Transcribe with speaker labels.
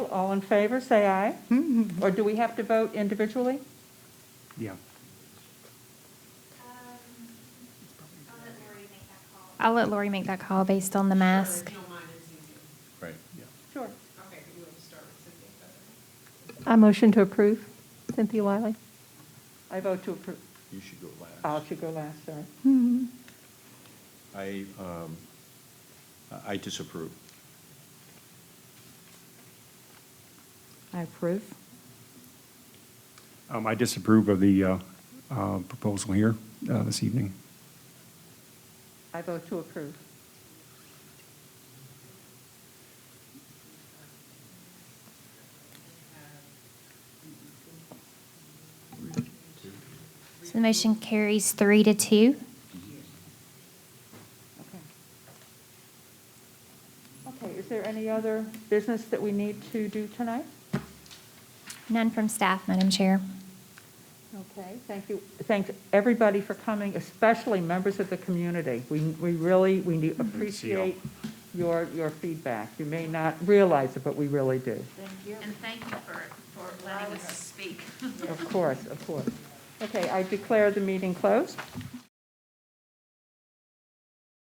Speaker 1: all in favor, say aye. Or do we have to vote individually?
Speaker 2: Yeah.
Speaker 3: I'll let Lori make that call based on the mask.
Speaker 4: Right.
Speaker 1: Sure.
Speaker 5: I motion to approve Cynthia Wiley.
Speaker 1: I vote to approve.
Speaker 4: You should go last.
Speaker 1: I'll let you go last, sorry.
Speaker 4: I, um, I disapprove.
Speaker 6: I approve.
Speaker 2: Um, I disapprove of the uh, uh, proposal here uh, this evening.
Speaker 1: I vote to approve.
Speaker 3: So the motion carries three to two.
Speaker 1: Okay. Okay, is there any other business that we need to do tonight?
Speaker 3: None from staff, Madam Chair.
Speaker 1: Okay, thank you. Thanks, everybody, for coming, especially members of the community. We, we really, we do appreciate your, your feedback. You may not realize it, but we really do.
Speaker 7: And thank you for, for letting us speak.
Speaker 1: Of course, of course. Okay, I declare the meeting closed.